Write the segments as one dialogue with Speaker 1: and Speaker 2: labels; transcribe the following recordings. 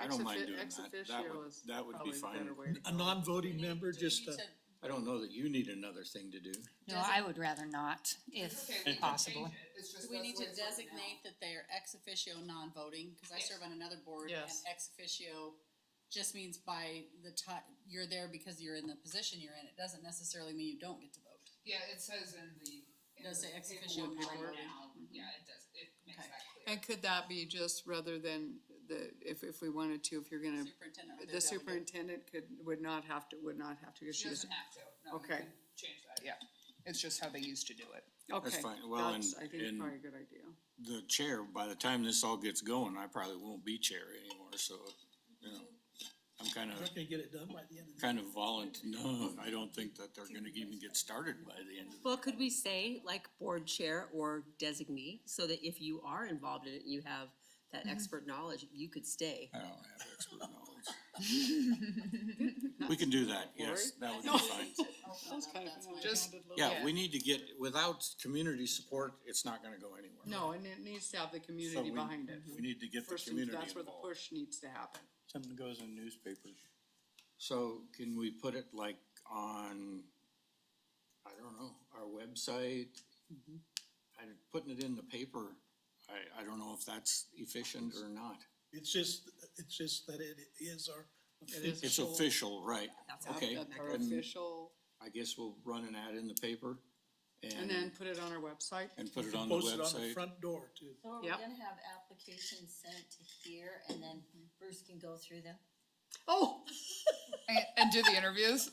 Speaker 1: I don't mind
Speaker 2: offi-
Speaker 1: doing
Speaker 2: ex
Speaker 1: that. That
Speaker 2: officio
Speaker 1: would,
Speaker 2: is
Speaker 1: that would be
Speaker 2: probably the
Speaker 1: fine.
Speaker 2: better way to
Speaker 3: A
Speaker 2: go.
Speaker 3: non-voting member, just uh,
Speaker 4: Do
Speaker 3: a,
Speaker 4: you
Speaker 1: I don't know that you need another thing to do.
Speaker 5: No, I would rather not, if
Speaker 6: Okay, we can
Speaker 5: possible.
Speaker 6: change it. It's
Speaker 4: need to-
Speaker 6: just
Speaker 4: do we
Speaker 6: that's
Speaker 4: need
Speaker 6: the
Speaker 4: to
Speaker 6: way it's written now.
Speaker 4: designate that they are ex officio non-voting? Cause I
Speaker 6: Yes.
Speaker 4: serve on another board and
Speaker 2: Yes.
Speaker 4: ex officio just means by the ti- you're there because you're in the position you're in. It doesn't necessarily mean you don't get to vote.
Speaker 6: Yeah, it says in the. in
Speaker 4: Does
Speaker 6: the
Speaker 4: say ex officio
Speaker 6: paperwork
Speaker 4: non-voting.
Speaker 6: right now. Yeah, it does, it makes
Speaker 4: Okay.
Speaker 6: that clear.
Speaker 2: And could that be just rather than the, if, if we wanted to, if you're gonna,
Speaker 4: Superintendent or
Speaker 2: the
Speaker 4: their delegate.
Speaker 2: superintendent could, would not have to, would not have to, 'cause
Speaker 6: She
Speaker 2: she was,
Speaker 6: doesn't have to, no, we
Speaker 2: Okay.
Speaker 6: can change that.
Speaker 7: Yeah, it's just how they used to do it.
Speaker 2: okay.
Speaker 1: fine. Well,
Speaker 2: that's,
Speaker 1: and-
Speaker 2: I think
Speaker 1: and-
Speaker 2: probably a good idea.
Speaker 1: The chair, by the time this all gets going, I probably won't be chair anymore, so, you know. I'm kind
Speaker 3: we're
Speaker 1: of,
Speaker 3: not gonna get it done by the end of the.
Speaker 1: kind of volunteer, no, I don't think that they're gonna even get started by the end of the
Speaker 8: Well, could we say like board chair or designee, so that if you are involved in it and you have that expert knowledge, you could stay?
Speaker 1: I don't have expert knowledge. We can do that, yes, that would be fine.
Speaker 2: That's kind of.
Speaker 7: Just,
Speaker 1: Yeah, we need to get, without community support, it's not gonna go anywhere.
Speaker 2: No, and it needs to have the
Speaker 1: So
Speaker 2: community
Speaker 1: we,
Speaker 2: behind it.
Speaker 1: we need to get the
Speaker 2: First,
Speaker 1: community involved.
Speaker 2: that's where the push needs to happen.
Speaker 9: Something goes in newspapers.
Speaker 1: So can we put it like on, I don't know, our website? Mm-hmm. I, putting it in the paper, I, I don't know if that's efficient or not.
Speaker 3: It's just, it's just that it is our.
Speaker 2: is
Speaker 1: It's official, right? Okay,
Speaker 2: That Our
Speaker 1: then
Speaker 2: official,
Speaker 1: I guess we'll run an ad in the paper
Speaker 2: and
Speaker 1: and,
Speaker 2: then put it on our website.
Speaker 1: and put it on the
Speaker 3: Posted on the
Speaker 1: website.
Speaker 3: front door too.
Speaker 10: So are we
Speaker 2: Yep.
Speaker 10: gonna have applications sent to here and then Bruce can go through them?
Speaker 2: Oh,
Speaker 7: and, and do the interviews?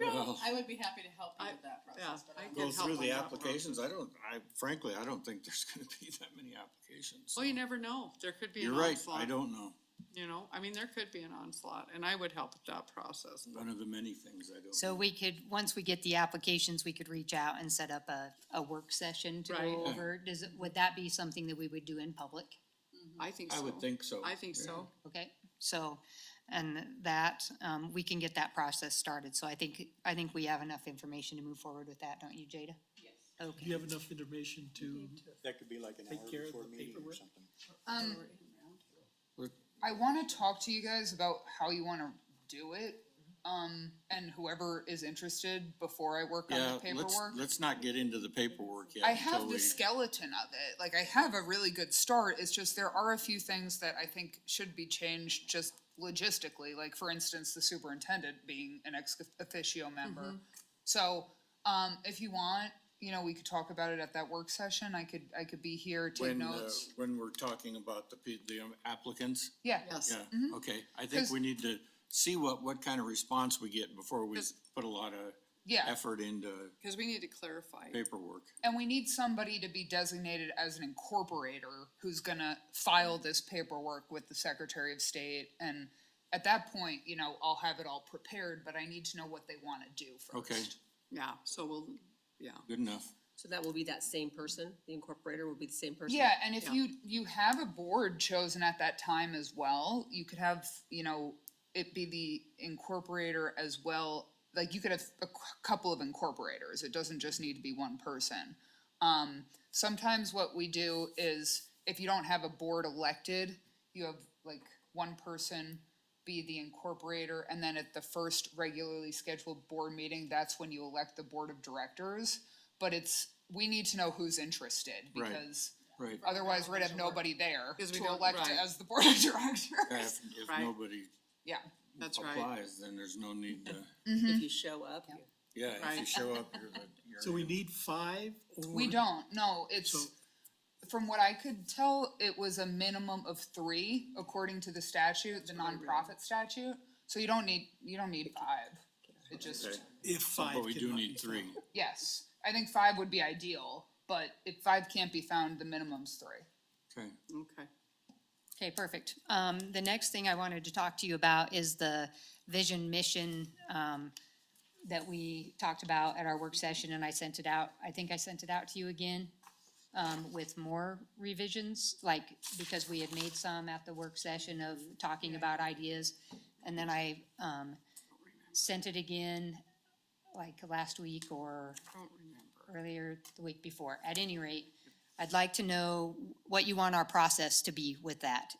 Speaker 1: Well,
Speaker 4: I would be happy to help you
Speaker 2: I-
Speaker 4: with that
Speaker 2: yeah,
Speaker 4: process, but
Speaker 2: I
Speaker 4: I,
Speaker 1: go
Speaker 2: can help
Speaker 1: through
Speaker 2: on
Speaker 1: the
Speaker 2: that part.
Speaker 1: applications. I don't, I frankly, I don't think there's gonna be that many applications.
Speaker 2: Well, you never know. There could be
Speaker 1: You're
Speaker 2: an
Speaker 1: right,
Speaker 2: onslaught.
Speaker 1: I don't know.
Speaker 2: You know, I mean, there could be an onslaught, and I would help with that process.
Speaker 1: One of the many things I don't know.
Speaker 5: So we could, once we get the applications, we could reach out and set up a, a work session to
Speaker 2: Right.
Speaker 5: go over. Does, it- would that be something that we would do in public?
Speaker 2: I think so.
Speaker 1: I would think so.
Speaker 2: I think
Speaker 1: yeah.
Speaker 2: so.
Speaker 5: Okay, so, and that, um, we can get that process started. So I think, I think we have enough information to move forward with that, don't you, Jada? Yes.
Speaker 3: Do you
Speaker 5: Okay.
Speaker 3: have enough information to,
Speaker 9: That could be like an
Speaker 3: Take
Speaker 9: hour
Speaker 3: care of
Speaker 9: before
Speaker 3: the
Speaker 9: meeting or
Speaker 3: paperwork.
Speaker 9: something.
Speaker 7: Um,
Speaker 1: We're-
Speaker 7: I wanna talk to you guys about how you wanna do it, um, and whoever is interested before I work on
Speaker 1: Yeah,
Speaker 7: the
Speaker 1: let's,
Speaker 7: paperwork.
Speaker 1: let's not get into the paperwork yet.
Speaker 7: I have
Speaker 1: until
Speaker 7: the
Speaker 1: we-
Speaker 7: skeleton of it, like I have a really good start, it's just there are a few things that I think should be changed just logistically, like for instance, the superintendent being an ex officio
Speaker 1: Mm-hmm.
Speaker 7: member. So, um, if you want, you know, we could talk about it at that work session, I could, I could be here, take
Speaker 1: When, uh,
Speaker 7: notes,
Speaker 1: when we're talking about the, pe- the um, applicants,
Speaker 7: yeah.
Speaker 2: Yes.
Speaker 1: yeah, okay. I think
Speaker 7: 'Cause-
Speaker 1: we need to see what, what kind of response we get before we
Speaker 2: 'Cause-
Speaker 1: put a lot of
Speaker 7: Yeah,
Speaker 1: effort into
Speaker 2: Because we need to clarify.
Speaker 1: paperwork.
Speaker 7: and we need somebody to be designated as an incorporator who's gonna file this paperwork with the Secretary of State. And at that point, you know, I'll have it all prepared, but I need to know what they wanna do first.
Speaker 1: Okay,
Speaker 2: Yeah, so we'll, yeah.
Speaker 1: good enough.
Speaker 8: So that will be that same person, the incorporator will be the same person?
Speaker 7: Yeah, and if
Speaker 2: Yeah.
Speaker 7: you, you have a board chosen at that time as well, you could have, you know, it be the incorporator as well. Like you could have a c- couple of incorporators, it doesn't just need to be one person. Um, sometimes what we do is if you don't have a board elected, you have like one person be the incorporator, and then at the first regularly scheduled board meeting, that's when you elect the board of directors. But it's, we need to know who's interested,
Speaker 1: Right.
Speaker 7: because
Speaker 1: Right.
Speaker 7: Otherwise, we'd have nobody there
Speaker 2: 'Cause we
Speaker 7: to
Speaker 2: don't-
Speaker 7: elect
Speaker 2: right.
Speaker 7: as the board of
Speaker 1: If,
Speaker 7: directors.
Speaker 1: if
Speaker 2: Right.
Speaker 1: nobody
Speaker 7: Yeah,
Speaker 2: That's right.
Speaker 1: applies, then there's no need to,
Speaker 8: If you show up, you-
Speaker 1: yeah, if you
Speaker 2: Right.
Speaker 1: show up, you're the, you're.
Speaker 3: so we
Speaker 1: in.
Speaker 3: need five or?
Speaker 7: we don't, no, it's,
Speaker 3: So-
Speaker 7: from what I could tell, it was a minimum of three, according to the statute, the nonprofit statute. So you don't need, you don't need five, it just,
Speaker 1: Okay.
Speaker 3: If five.
Speaker 1: But we do
Speaker 3: cannot be
Speaker 1: need three.
Speaker 3: found.
Speaker 7: yes, I think five would be ideal, but if five can't be found, the minimum's three.
Speaker 1: Okay,
Speaker 2: Okay.
Speaker 5: Okay, perfect. Um, the next thing I wanted to talk to you about is the vision, mission, um, that we talked about at our work session and I sent it out. I think I sent it out to you again, um, with more revisions, like, because we had made some at the work session of talking about ideas. And then I, um, sent it again, like last week or
Speaker 2: Don't remember.
Speaker 5: earlier the week before. At any rate, I'd like to know what you want our process to be with that.